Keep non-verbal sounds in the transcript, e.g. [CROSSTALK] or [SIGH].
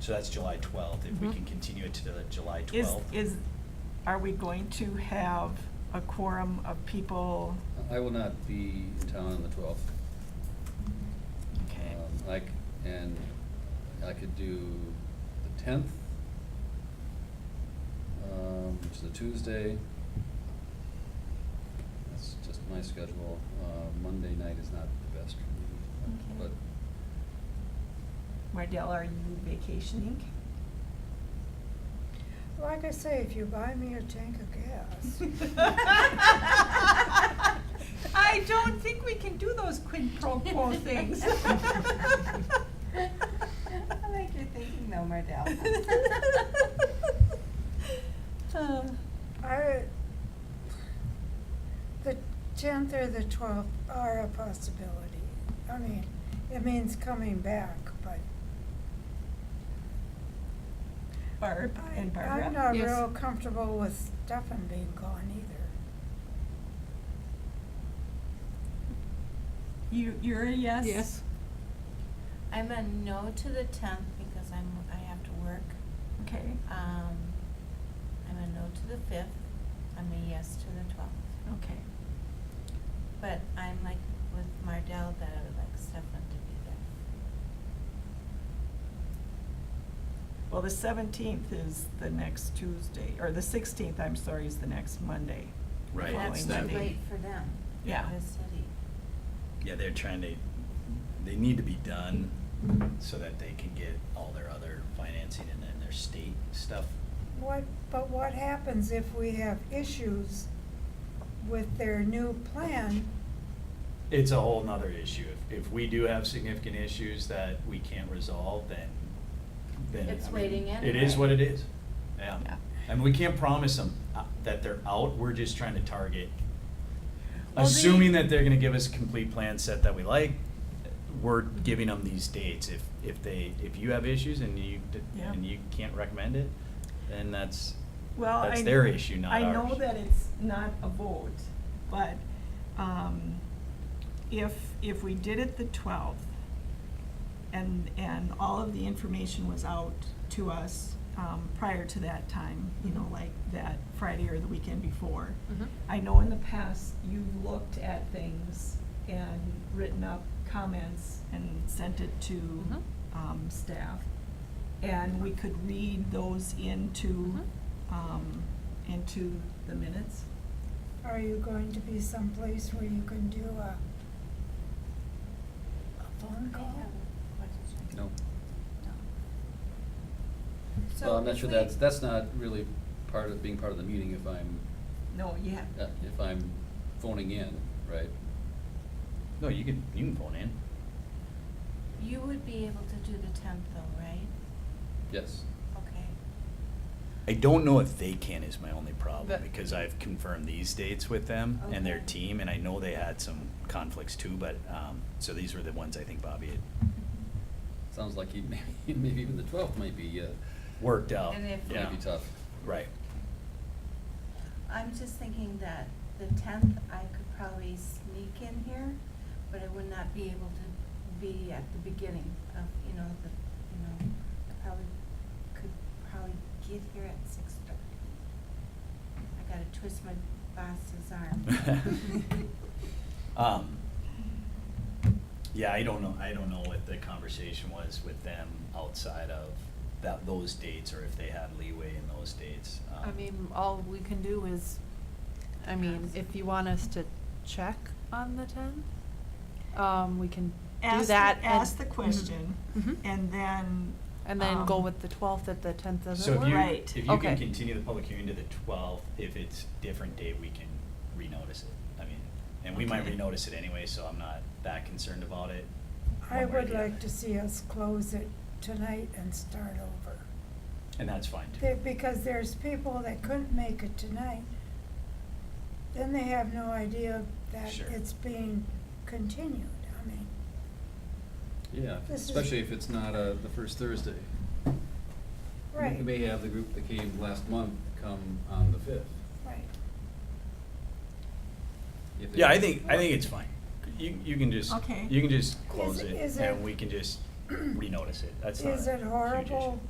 So that's July twelfth, if we Mhm. can continue it to the July Mm-hmm. Is, twelfth. is, are we going to have a quorum of people? I will not be in town on the twelfth. Okay, Like, and I could do the tenth, um, which is a Tuesday. That's just my schedule. Uh, Monday night is not the best for me, Okay. but Mardell, are you vacationing? Like I say, if you buy me a tank of [LAUGHS] gas. I don't think we can do those quid pro [LAUGHS] quo things. Mm-hmm. I like your thinking though, Mardell. Um, I, the tenth or the twelfth are a possibility. I mean, it means coming back, but [LAUGHS] Barb I, and I'm Barbara? not Yes. real comfortable with Stefan being gone either. You, you're a yes? Yes. I'm a no to the tenth because I'm, I have to work. Okay, uh, Um, I'm a no to the fifth, I'm a yes to the twelfth. okay. But I'm like with Mardell that I would like Stefan to be there. Well, the seventeenth is the next Tuesday, or the sixteenth, I'm sorry, is the next Monday. Right, Following it's That's that, too Monday. late for them. Yeah. The city. yeah, they're trying to, they need to be done so that they can get all their other financing and then their state stuff. What, but what happens if we have issues with their new plan? It's a whole nother issue. If, if we do have significant issues that we can't resolve, then, then. I It's mean, waiting It is anyway. what it is, yeah. Yeah. And we can't promise them uh, that they're out, we're just trying to target. Well, Assuming they- that they're gonna give us a complete plan set that we like, we're giving them these dates. If, if they, if you have issues and you, d- Yeah. and you can't recommend it, then that's, Well, I. that's their issue, not ours. I know that it's not a vote, but, um, if, if we did it the twelfth, and, and all of the information was out to us, um, prior to that time, you know, like that Friday or the weekend before. I know in the past, you've looked at things and written up comments and sent it to, Mhm. um, staff. And we could read those Mm-hmm. into, um, into the minutes. Are you going to be someplace where you can do a a phone I have call? a question. no. So Well, I'm not if sure we- that's, that's not really part of, being part of the meeting if I'm, No, yeah. Mm-hmm. uh, if I'm phoning in, right? No, you can, you can phone in. You would be able to do the tenth though, right? Yes. Okay. I don't know if they can is my only problem But- because I've confirmed these dates with them and their Okay. team, and I know they had some conflicts too. But um, so these were the ones I think Bobby had Sounds like you, maybe, [LAUGHS] maybe even the twelfth might be, uh, worked out. And if- yeah, might be tough. right. I'm just thinking that the tenth, I could probably sneak in here, but I would not be able to be at the beginning of, you know, the, you know, I probably, could probably get here at six thirty. I gotta twist my boss's [LAUGHS] [LAUGHS] [LAUGHS] arm. Um, yeah, I don't know. I don't know what the conversation was with them outside of that those dates, or if they had leeway in those dates. Um, I mean, all we can do is, I mean, Ask. if you want us to check on the tenth, um, we can do Ask the- that. and- Ask the question, Mhm. and then. And then go um, with the twelfth if the tenth doesn't So if work. you, Right. if you can Okay. continue the public hearing to the twelfth, if it's different date, we can renotice it. I mean, and we might Okay. renotice it anyway, so I'm not that concerned about it. I one way or would the other. like to see us close it tonight and start over. And that's fine There- too. Because there's people that couldn't make it tonight, then they have no idea that Sure. it's being continued. I mean, Yeah, This is- especially if it's not, uh, the first Thursday. right, You may have the group that came last month come on the fifth. right. if they- Yeah, I think, I think it's fine. You, you can just, Okay. you can just close Is- it is it- and we can just renotice it. That's not a Is it huge issue. horrible